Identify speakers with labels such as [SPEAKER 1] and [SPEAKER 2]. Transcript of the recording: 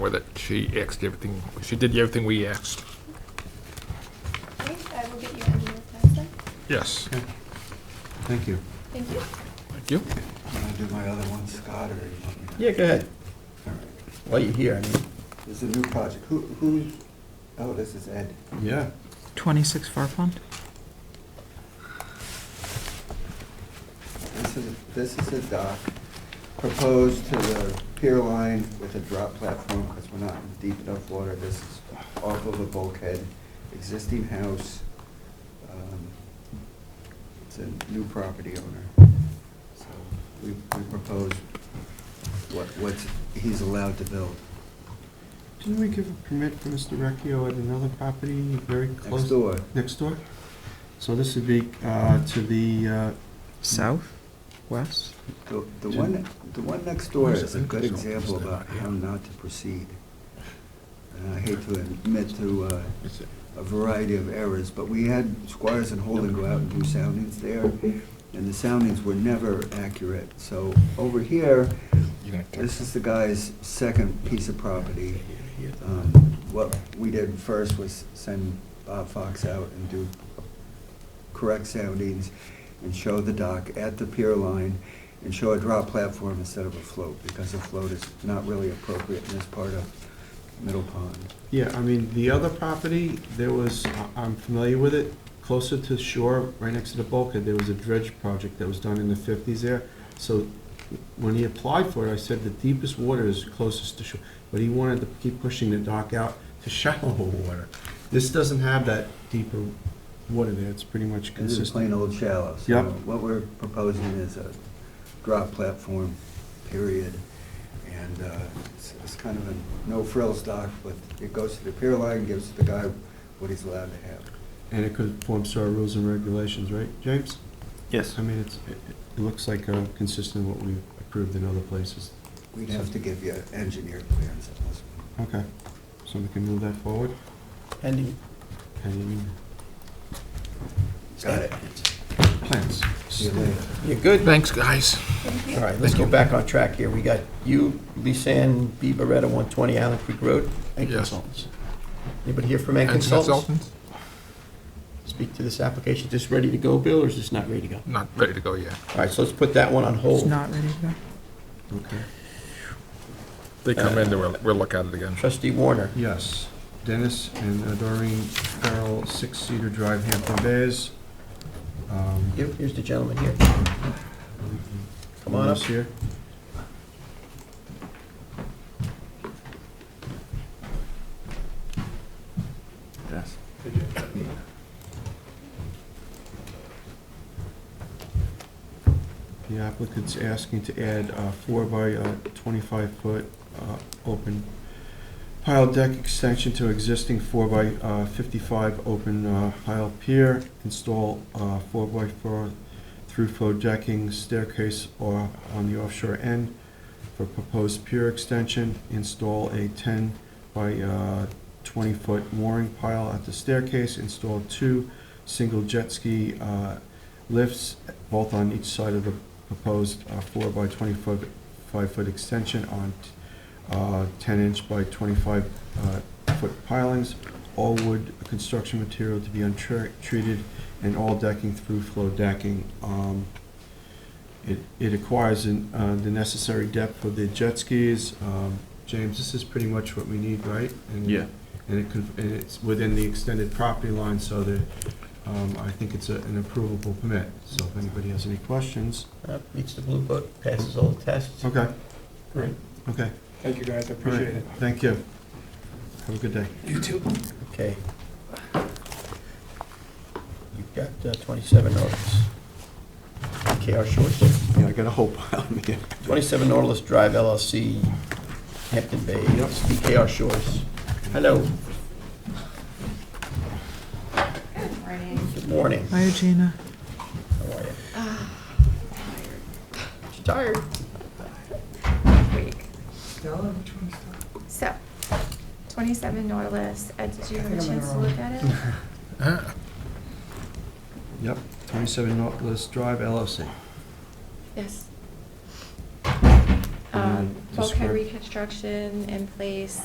[SPEAKER 1] with it. She asked everything, she did everything we asked.
[SPEAKER 2] Okay, I will get you an email with that.
[SPEAKER 1] Yes.
[SPEAKER 3] Thank you.
[SPEAKER 2] Thank you.
[SPEAKER 1] Thank you.
[SPEAKER 3] Can I do my other one, Scott, or? you want me to-
[SPEAKER 4] Yeah, go ahead.
[SPEAKER 3] All right.
[SPEAKER 4] While you're here, I mean.
[SPEAKER 3] This is a new project. Who, who, oh, this is Ed.
[SPEAKER 4] Yeah.
[SPEAKER 5] 26 Far Pond?
[SPEAKER 3] This is, this is a dock proposed to the pier line with a drop platform because we're not in deep enough water. This is off of a bulkhead, existing house. Um, It's a new property owner. So we, we propose what, what he's allowed to build.
[SPEAKER 6] Didn't we give a permit for Mr. Recchio at another property very
[SPEAKER 3] Next
[SPEAKER 6] close?
[SPEAKER 3] door,
[SPEAKER 6] Next door? So this would be uh, to the, uh,
[SPEAKER 5] South? West?
[SPEAKER 3] the, the one, the one next door is a good example about how not to proceed. And I hate to admit to, uh, a variety of errors, but we had Squires and Holden go out and do soundings there, and the soundings were never accurate. So over here, this is the guy's second piece of property. Um, What we did first was send Bob Fox out and do correct soundings and show the dock at the pier line and show a drop platform instead of a float, because a float is not really appropriate in this part of Middle Pond.
[SPEAKER 6] yeah, I mean, the other property, there was, I- I'm familiar with it, closer to shore, right next to the bulkhead, there was a dredge project that was done in the fifties there. So when he applied for it, I said the deepest water is closest to shore, but he wanted to keep pushing the dock out to shallower water. This doesn't have that deeper water there, it's pretty much
[SPEAKER 3] This is
[SPEAKER 6] consistent.
[SPEAKER 3] plain old shallow. So
[SPEAKER 6] Yep.
[SPEAKER 3] What we're proposing is a drop platform, period. And uh, it's- it's kind of a no-frills dock, but it goes to the pier line, gives the guy what he's allowed to have.
[SPEAKER 6] And it conforms to our rules and regulations, right, James?
[SPEAKER 4] Yes.
[SPEAKER 6] I mean, it's, it it looks like uh, consistent with what we've approved in other places.
[SPEAKER 3] We'd have to give you engineer plans on this one.
[SPEAKER 6] Okay, so we can move that forward.
[SPEAKER 4] Pending.
[SPEAKER 6] Pending
[SPEAKER 3] Got it.
[SPEAKER 6] plans.
[SPEAKER 3] See you later.
[SPEAKER 4] You're good.
[SPEAKER 1] Thanks, guys.
[SPEAKER 2] Thank you.
[SPEAKER 4] All right, let's go back on track here. We got you, Lisanne B. Beretta, 120 Allen Creek Road, Ed
[SPEAKER 1] Yes.
[SPEAKER 4] Consultants. Anybody here from Ed
[SPEAKER 1] And
[SPEAKER 4] Consultants? Speak to this application. Is this ready to go, Bill, or is this not ready to go?
[SPEAKER 1] Not ready to go yet.
[SPEAKER 4] All right, so let's put that one on
[SPEAKER 5] It's
[SPEAKER 4] hold.
[SPEAKER 5] not ready to go.
[SPEAKER 6] Okay.
[SPEAKER 1] They come in, then we'll, we'll look at it again.
[SPEAKER 4] Trustee Warner,
[SPEAKER 6] Yes, Dennis and uh, Doreen Farrell, Six Cedar Drive, Hampton Bays. Um,
[SPEAKER 4] here- here's the gentleman here. Come
[SPEAKER 6] who
[SPEAKER 4] on up.
[SPEAKER 6] else here.
[SPEAKER 3] Yes.
[SPEAKER 6] The applicant's asking to add a four by uh, 25 foot uh, open pile deck extension to existing four by uh, 55 open uh, pile pier, install uh, four by four through flow decking staircase or on the offshore end for proposed pier extension, install a 10 by uh, 20 foot mooring pile at the staircase, install two single jet ski uh, lifts, both on each side of the proposed uh, four by twenty-foot, five-foot extension on uh, ten-inch by twenty-five-foot pilings, all wood construction material to be untreated, and all decking through flow decking. Um, It it acquires an, uh, the necessary depth for the jet skis. Um, James, this is pretty much what we need, right? And-
[SPEAKER 4] Yeah.
[SPEAKER 6] And it con- and it's within the extended property line, so that um, I think it's a- an approvable permit, so if anybody has any questions.
[SPEAKER 4] Uh, Meets the blue book, passes all the tests.
[SPEAKER 6] Okay,
[SPEAKER 4] Great.
[SPEAKER 6] okay.
[SPEAKER 7] Thank you, guys, I
[SPEAKER 6] All right.
[SPEAKER 7] appreciate it.
[SPEAKER 6] Thank you. Have a good day.
[SPEAKER 7] You too.
[SPEAKER 4] Okay. You've got uh, 27 Nautilus. KR Short.
[SPEAKER 3] Yeah, I got a whole pile here.
[SPEAKER 4] 27 Nautilus Drive LLC, Hampton Bay, DKR Shores. Hello, good morning.
[SPEAKER 5] Hi, Gina.
[SPEAKER 4] How are you? She's Tired?
[SPEAKER 2] So, 27 Nautilus, Ed, did you have a chance to look at it?
[SPEAKER 1] Ah,
[SPEAKER 6] Yep, 27 Nautilus Drive LLC.
[SPEAKER 2] Yes.
[SPEAKER 6] Uh,
[SPEAKER 2] Um, Bulkhead
[SPEAKER 6] describe-
[SPEAKER 2] reconstruction in place,